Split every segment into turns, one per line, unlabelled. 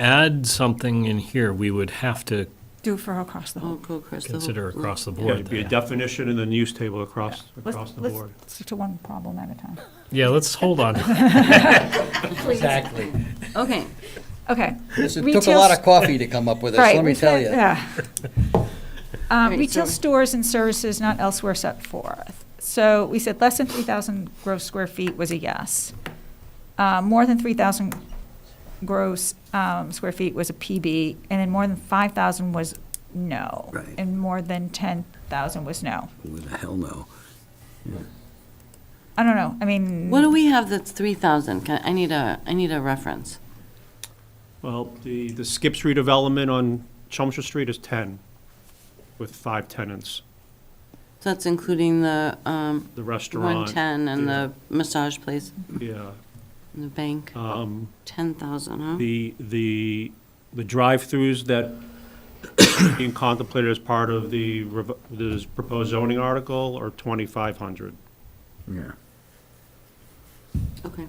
add something in here, we would have to
Do for across the
Oh,
whole.
go across the whole-
consider across the
Yeah, it'd
board.
be a
there.
definition and then use table across,
Let's-
across the
let's
board.
Stick to one problem at a time.
Yeah, let's hold on.
Exactly.
Okay,
Okay.
This- It took a
Retail
lot
s-
of coffee to come up with this,
Right,
let me
we've
tell
had-
you.
yeah. Um,
Right,
Retail
so-
stores and services not elsewhere set forth. So we said less than 3,000 gross square feet was a yes. Uh, More than 3,000 gross um, square feet was a PB, and then more than 5,000 was no.
Right.
And more than 10,000 was no.
With a hell no.
I don't know, I mean.
what do we have that's 3,000? Can- I need a, I need a reference.
Well, the, the Skips redevelopment on Chelmsford Street is 10, with five tenants.
So that's including the um,
The restaurant.
110 and the massage place,
Yeah.
and the bank,
Um,
10,000, huh?
The, the, the drive-throughs that being contemplated as part of the, rev- this proposed zoning article are 2,500.
Yeah.
Okay.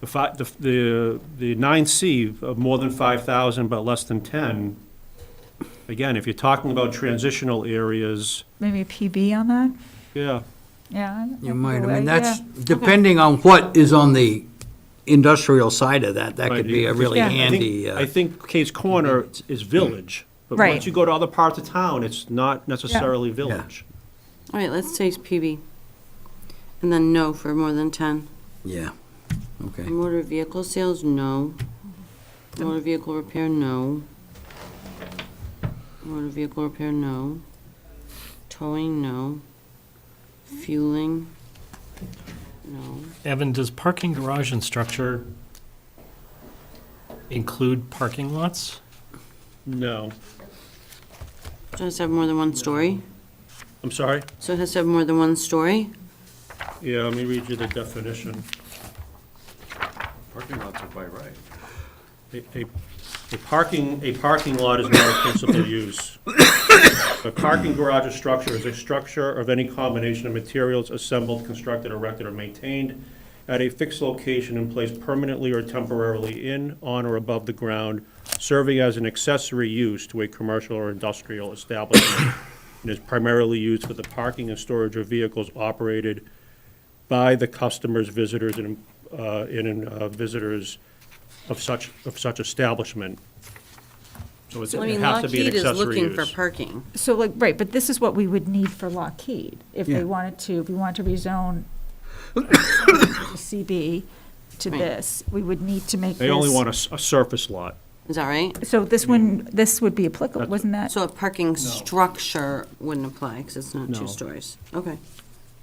The fi, the, the, the nine C of more than five thousand but less than ten, again, if you're talking about transitional areas,
Maybe a PB on that?
yeah,
Yeah. I-
You
I'd
might,
go
I mean,
with-
that's,
yeah.
depending on what is on the industrial side of that, that
Right,
could be a
you-
really
Yeah. I
I
handy,
think, I
uh,
think Kate's Corner is village. But
Right.
once you go to other parts of town, it's not necessarily village.
All right, let's say it's PB. And then no for more than 10.
uh, yeah, okay.
Motor vehicle sales, no. Motor vehicle repair, no. Motor vehicle repair, no. Towing, no. Fueling, no.
Evan, does parking garage and structure include parking lots?
No,
So it has to have more than one story?
I'm sorry?
So it has to have more than one story?
Yeah, let me read you the definition.
Parking lots are by right.
A, a- a parking, a parking lot is not a principal use. A parking garage or structure is a structure of any combination of materials assembled, constructed, erected, or maintained at a fixed location and placed permanently or temporarily in, on, or above the ground, serving as an accessory use to a commercial or industrial establishment, and is primarily used for the parking and storage of vehicles operated by the customers, visitors, and, uh, and uh, visitors of such, of such establishment. So it's-
So I
it
mean,
has to be an
Lockheed is
accessory
looking for
use.
parking.
So like, right, but this is what we would need for Lockheed, if
Yeah.
they wanted to, if we wanted to rezone CB to
Right.
this, we would need to make this.
Hmm. They only want a, s- a surface lot.
Is that right?
So this one, this would be applicable,
That's-
wasn't that?
So a parking structure wouldn't apply because it's not
No.
two stories. Okay.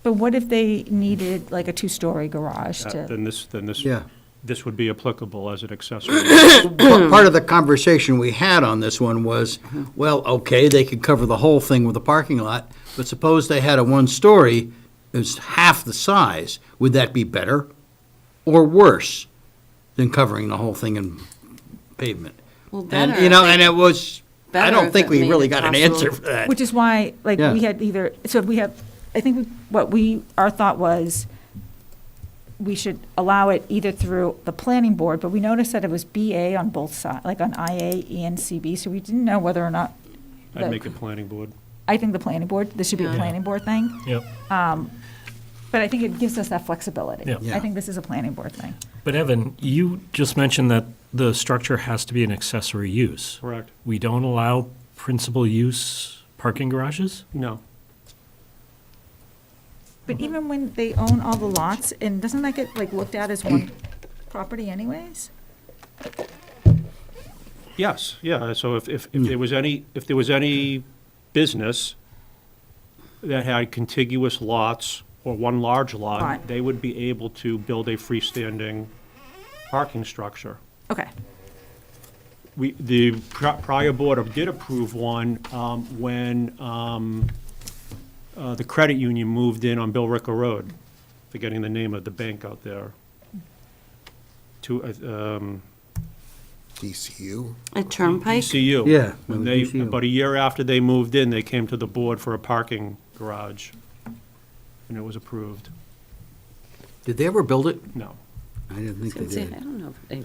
But what if they needed like a two-story garage
Uh,
to?
Then this, then this,
Yeah.
this would be applicable as an accessory.
Pa- Part of the conversation we had on this one was, well, okay, they could cover the whole thing with a parking lot, but suppose they had a one-story, it's half the size, would that be better or worse than covering the whole thing in pavement?
Well,
And,
better.
you know, and it was, I
Better
don't
if
think
it
we
made
really
it
got an
possible.
answer for that.
Which is why, like,
Yeah.
we had either, so we have, I think what we, our thought was, we should allow it either through the planning board, but we noticed that it was BA on both sides, like on IA and CB, so we didn't know whether or not
I'd make it planning board.
I think the planning board, this should be a
Yeah.
planning board thing,
Yep.
but I think it gives us that flexibility.
Yeah. Mm-hmm.
I think this is a planning board thing.
But Evan, you just mentioned that the structure has to be an accessory use.
Correct.
We don't allow principal use parking garages?
No.
But even when they own all the lots, and doesn't that get like looked at as one property anyways?
Yes, yeah, so if, if, if there was any, if there was any business that had contiguous lots or one large lot,
Right.
they would be able to build a freestanding parking structure.
Okay,
We, the pri- prior board did approve one um, when um, uh, the credit union moved in on Bill Ricker Road, forgetting the name of the bank out there. To, uh, um,
DCU?
A turnpike?
DCU.
Yeah,
When
with
they,
DCU.
about a year after they moved in, they came to the board for a parking garage, and it was approved.
Did they ever build it?
No.
I didn't think
I
they
would say-
did.
I don't know if they